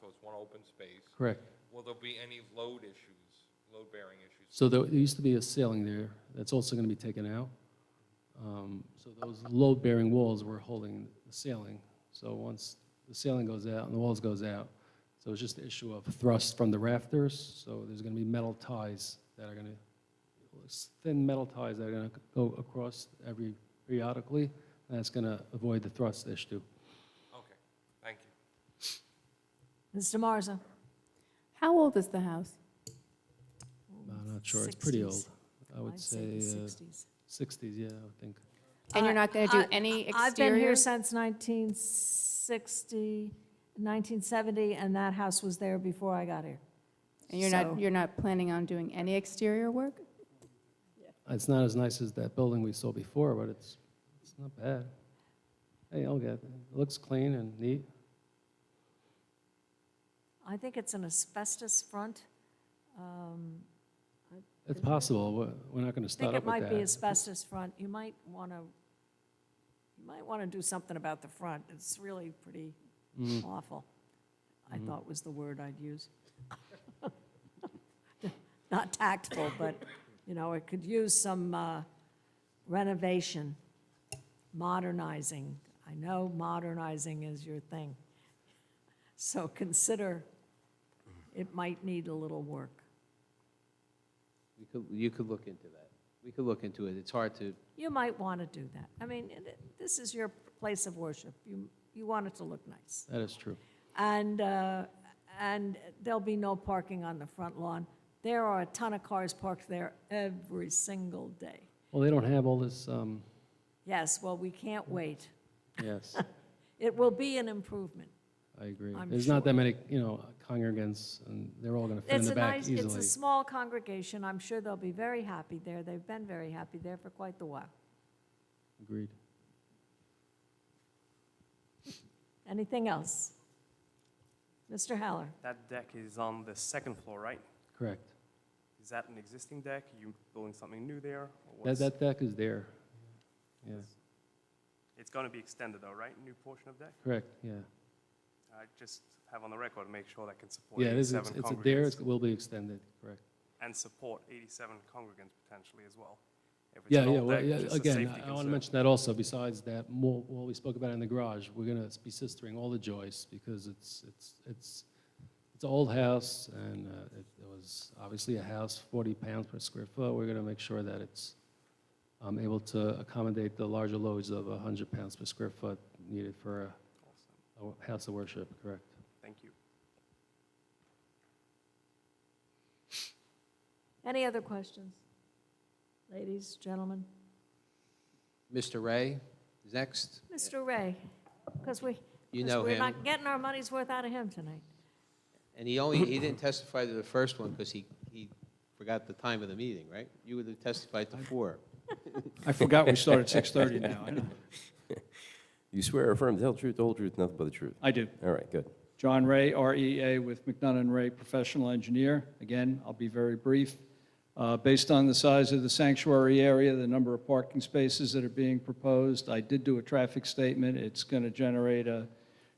so it's one open space. Correct. Will there be any load issues, load-bearing issues? So there there used to be a ceiling there, that's also going to be taken out. Um, So those load-bearing walls were holding the ceiling. So once the ceiling goes out and the walls goes out, so it's just the issue of thrust from the rafters, so there's going to be metal ties that are going to, thin metal ties that are going to go across every periodically, and that's going to avoid the thrust issue. Okay, thank you. Mr. Marzo? How old is the house? I'm not sure, it's pretty 60s. old. I would I'd say the uh, 60s. 60s, yeah, I would think. And you're Uh, not going to uh, do any I've been here exterior? since 1960, 1970, and that house was there before I got here. And you're So- not, you're not planning on doing any exterior work? It's not as nice as that building we saw before, but it's, it's not bad. Hey, I'll get, it looks clean and neat. I think it's an asbestos front. um, It's possible, we're, we're not gonna I think start it up with might be that. asbestos front. You might want to, you might want to do something about the front. It's really pretty Mm. awful, I thought was the word I'd use. Not tactful, but, you know, it could use some uh, renovation, modernizing. I know modernizing is your thing. So consider, it might need a little work. You could, you could look into that. We could look into it. It's hard to, you might want to do that. I mean, it- it- this is your place of worship. You, you want it to look nice. That is true. And, uh, and there'll be no parking on the front lawn. There are a ton of cars parked there every single day. Well, they don't have all this, um, Yes, well, we can't wait. yes, It will be an improvement. I agree. I'm There's not that many, you know, congregants, and they're all gonna fit in It's the a back nice, it's easily. a small congregation. I'm sure they'll be very happy there. They've been very happy there for quite the while. Agreed. Anything else? Mr. Haller? That deck is on the second floor, right? Correct. Is that an existing deck? You building something new there? or That, what's- that deck is there. Yeah, It's going to be extended though, right? New portion of deck? correct, yeah. I just have on the record, make sure that can support Yeah, it is, it's 87 it's a there, congregants. it will be extended, correct. And support 87 congregants potentially as well. If it's Yeah, an yeah, old well, deck, yeah, just a again, safety I want to concern. mention that also, besides that, more, what we spoke about in the garage, we're going to be sistering all the joists because it's, it's, it's, it's an old house and uh, it it was obviously a house, 40 pounds per square foot. We're going to make sure that it's um, able to accommodate the larger loads of 100 pounds per square foot needed for Awesome. a- a house of worship, correct? Thank you. Any other questions? Ladies, gentlemen? Mr. Ray is next. Mr. Ray, because we, You 'cause know we're him. not getting our money's worth out of him tonight. And he only, he didn't testify to the first one because he, he forgot the time of the meeting, right? You would have testified to four. I forgot we start at 6:30 now. I know. You swear or affirm to tell the truth, the whole truth, nothing but the truth. I do. All right, good. John Ray, REA with McDonough and Ray Professional Engineer. Again, I'll be very brief. Uh, Based on the size of the sanctuary area, the number of parking spaces that are being proposed, I did do a traffic statement. It's going to generate a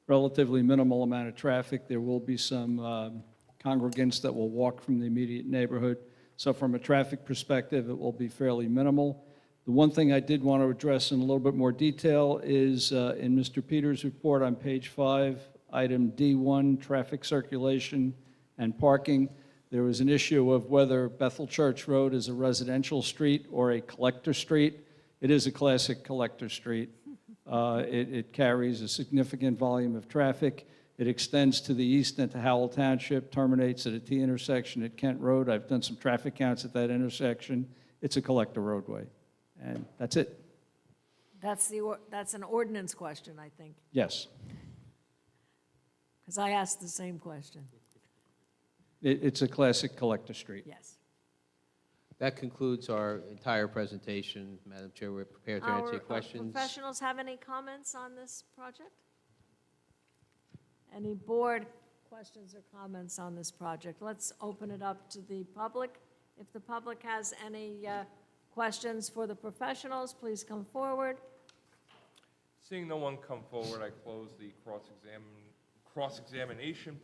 relatively minimal amount of traffic. There will be some um, congregants that will walk from the immediate neighborhood. So from a traffic perspective, it will be fairly minimal. The one thing I did want to address in a little bit more detail is uh, in Mr. Peters' report on page five, item D1, traffic circulation and parking. There was an issue of whether Bethel Church Road is a residential street or a collector street. It is a classic collector street. Uh, It it carries a significant volume of traffic. It extends to the east into Howell Township, terminates at a T intersection at Kent Road. I've done some traffic counts at that intersection. It's a collector roadway. And that's it. That's the, or- that's an ordinance question, I think, Yes. because I asked the same question. It- It's a classic collector street. Yes. That concludes our entire presentation. Madam Chair, we're prepared to Our, answer uh, your questions. Professionals have any comments on this project? Any board questions or comments on this project? Let's open it up to the public. If the public has any uh, questions for the professionals, please come forward. Seeing no one come forward, I close the cross-examin, cross-examination